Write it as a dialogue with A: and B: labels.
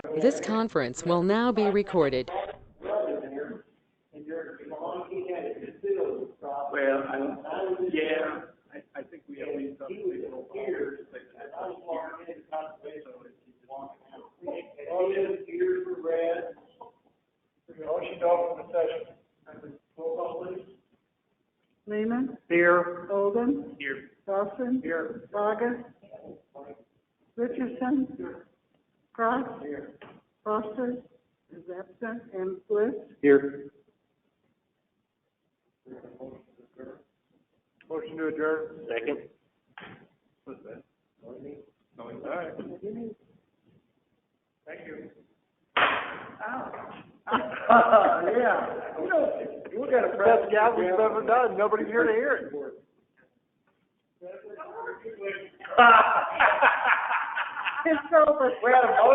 A: This conference will now be recorded.
B: Well, I don't, yeah, I, I think we have these up. Here. Motion here for red. Motion to open the session. Roll call please.
C: Lehman,
B: Here.
C: Golden,
B: Here.
C: Dawson,
B: Here.
C: Bogus, Richardson, Cross, Foster is absent, and Bliss.
B: Here. Motion to adjourn. Second. What's that? No, it's all right. Thank you. Yeah, you know, you got a press. Best job we've ever done, nobody here to hear it.
C: It's over.
B: We had a motion